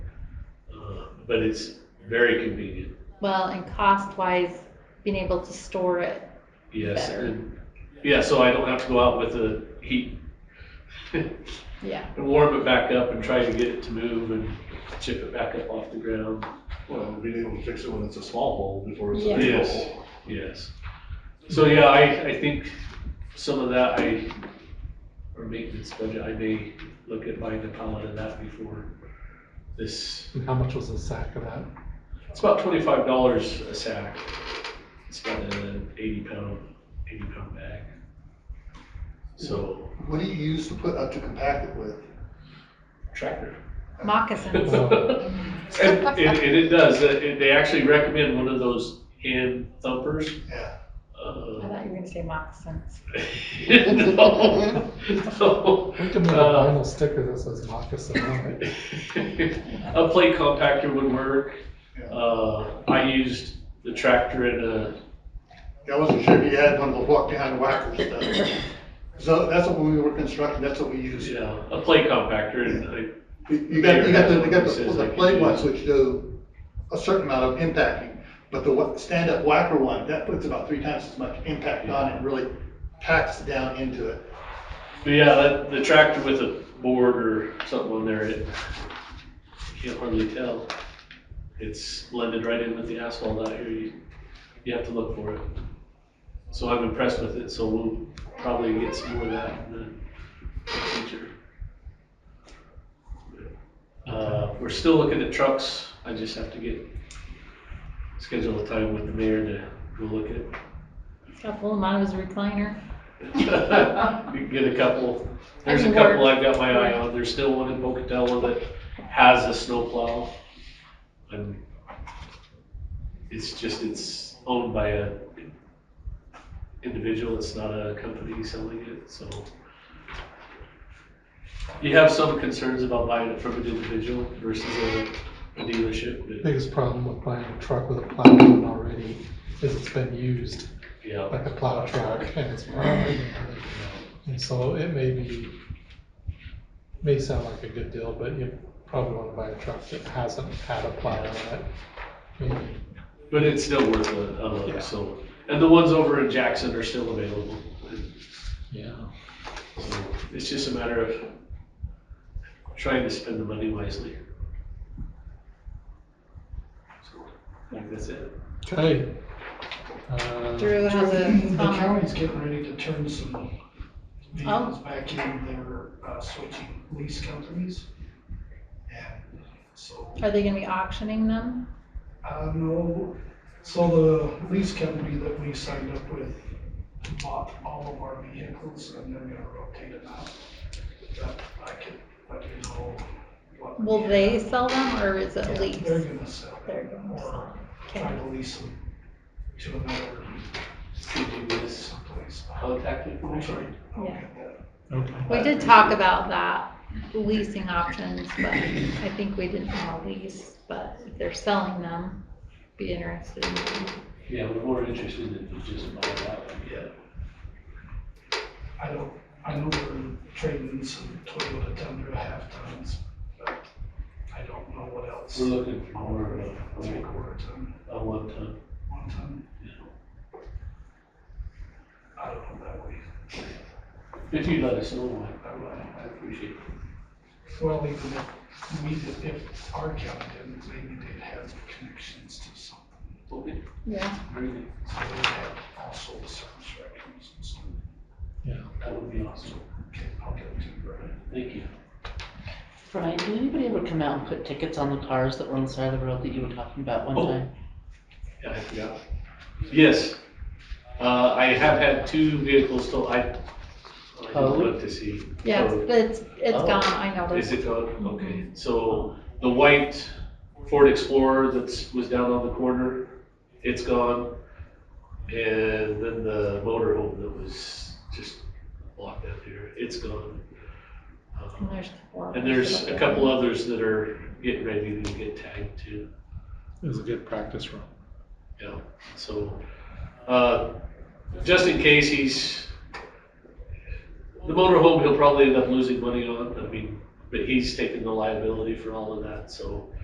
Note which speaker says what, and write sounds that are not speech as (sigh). Speaker 1: Um, but it's very convenient.
Speaker 2: Well, and cost wise, being able to store it.
Speaker 1: Yes,
Speaker 2: Better.
Speaker 1: and, yeah, so I don't have to go out with the heat
Speaker 2: Yeah.
Speaker 1: and warm it back up and try to get it to move and chip it back up off the ground.
Speaker 3: Well, being able to fix it when it's a small hole before it's a
Speaker 2: Yeah.
Speaker 3: big
Speaker 1: Yes.
Speaker 3: hole.
Speaker 1: Yes. So yeah, I, I think some of that I, or maintenance budget, I may look at buying a pallet of that before this.
Speaker 4: And how much was the sack of that?
Speaker 1: It's about twenty-five dollars a sack. It's got an eighty pound, eighty pound bag. So
Speaker 5: What do you use to put, uh, to compact it with?
Speaker 1: tractor. (laughs)
Speaker 2: Moccasins.
Speaker 1: And, and, and it does, uh, it- they actually recommend one of those hand thumpers.
Speaker 5: Yeah.
Speaker 2: I
Speaker 1: Uh, (laughs)
Speaker 2: thought you were gonna say moccasins.
Speaker 1: No, no.
Speaker 4: We can make a
Speaker 1: Uh,
Speaker 4: vinyl sticker that says moccasin on it.
Speaker 1: A plate compactor would work. Uh, I used the tractor and a,
Speaker 5: I wasn't sure if you had one of those walk-behind whacker stuff. So that's what when we were constructing, that's what we used.
Speaker 1: you know, a plate compactor and I,
Speaker 5: You you got, you got the, you got
Speaker 1: Says
Speaker 5: the,
Speaker 1: I
Speaker 5: the
Speaker 1: can
Speaker 5: play
Speaker 1: do
Speaker 5: ones
Speaker 1: that.
Speaker 5: which do a certain amount of impacting, but the wha- stand-up whacker one, that puts about three times as much impact on it, really packs down into it.
Speaker 1: but yeah, that, the tractor with a board or something on there, it, you can't hardly tell. It's blended right in with the asphalt out here. You, you have to look for it. So I'm impressed with it, so we'll probably get some more of that in the future. Uh, we're still looking at trucks. I just have to get, schedule a time with the mayor to go look
Speaker 2: It's got a little amount of his recliner.
Speaker 1: (laughs) at. Get a couple, there's a
Speaker 2: That'd work.
Speaker 1: couple I've got my eye on. There's still one in Pocatello that has a snowplow. And it's just, it's owned by a individual, it's not a company selling it, so. You have some concerns about buying it from an individual versus a a dealership, but
Speaker 4: Biggest problem with buying a truck with a plow on it already is it's been used,
Speaker 1: yeah.
Speaker 4: like a plow truck, and it's. And so it may be, may sound like a good deal, but you probably wanna buy a truck that hasn't had a plow on it. Maybe
Speaker 1: But it's still worth a, a
Speaker 4: Yeah.
Speaker 1: look, so, and the ones over in Jackson are still available.
Speaker 4: Yeah.
Speaker 1: So It's just a matter of trying to spend the money wisely. So, I think that's it.
Speaker 4: Okay. Uh,
Speaker 2: Drew has a
Speaker 6: The
Speaker 2: comment.
Speaker 6: county's getting ready to turn some vehicles
Speaker 2: Oh.
Speaker 6: back in, they're uh, switching lease companies. And so,
Speaker 2: Are they gonna be auctioning them?
Speaker 6: I don't know, so the lease company that we signed up with bought all of our vehicles and they're gonna rotate it out. But I can let you know what.
Speaker 2: Will they sell them or is it a lease?
Speaker 6: They're gonna sell
Speaker 2: They're
Speaker 6: them
Speaker 2: gonna sell
Speaker 6: or try
Speaker 2: Okay.
Speaker 6: to lease them to another
Speaker 1: Give you this
Speaker 6: someplace.
Speaker 1: contact information.
Speaker 6: I'll
Speaker 2: Yeah.
Speaker 6: get that.
Speaker 4: Okay.
Speaker 2: We did talk about that, leasing options, but I think we didn't want to lease, but if they're selling them, be interested in
Speaker 1: Yeah, we're more interested in just buying that one. Yeah.
Speaker 6: I don't, I know we're trading some Toyota Tundra half tons, but I don't know what else.
Speaker 1: We're looking for more of
Speaker 6: Three
Speaker 1: a,
Speaker 6: quarter ton,
Speaker 1: a one ton.
Speaker 6: one ton, I don't know that way.
Speaker 1: If you let us know, Mike,
Speaker 6: I would-
Speaker 1: I appreciate it.
Speaker 6: Well, even if we, did- if our county didn't, maybe they'd have connections to something.
Speaker 1: Okay,
Speaker 2: Yeah.
Speaker 1: very good.
Speaker 6: So they'd have also service records and stuff.
Speaker 1: That would be awesome.
Speaker 6: Okay, I'll get it to you, Brian.
Speaker 1: Thank you.
Speaker 7: Brian, did anybody ever come out and put tickets on the cars that were on the side of the road that you were talking about one
Speaker 1: Oh.
Speaker 7: time?
Speaker 1: Yeah, I forgot. Yes, uh, I have had two vehicles towed, I, I
Speaker 7: Towed?
Speaker 1: looked to see.
Speaker 2: Yeah,
Speaker 1: Towed.
Speaker 2: it's, it's- it's
Speaker 7: Oh.
Speaker 2: gone, I know.
Speaker 1: Is
Speaker 2: there's-
Speaker 1: it gone? Okay, so the white Ford Explorer that's, was down on the corner, it's gone. And then the motorhome that was just blocked up here, it's gone.
Speaker 2: And
Speaker 1: Um,
Speaker 2: there's a couple of
Speaker 1: And there's
Speaker 2: others.
Speaker 1: a couple others that are getting ready to get tagged too.
Speaker 4: It was a good practice run.
Speaker 1: Yeah, so, uh, just in case he's, the motorhome, he'll probably end up losing money on, I mean, but he's taking the liability for all of that, so.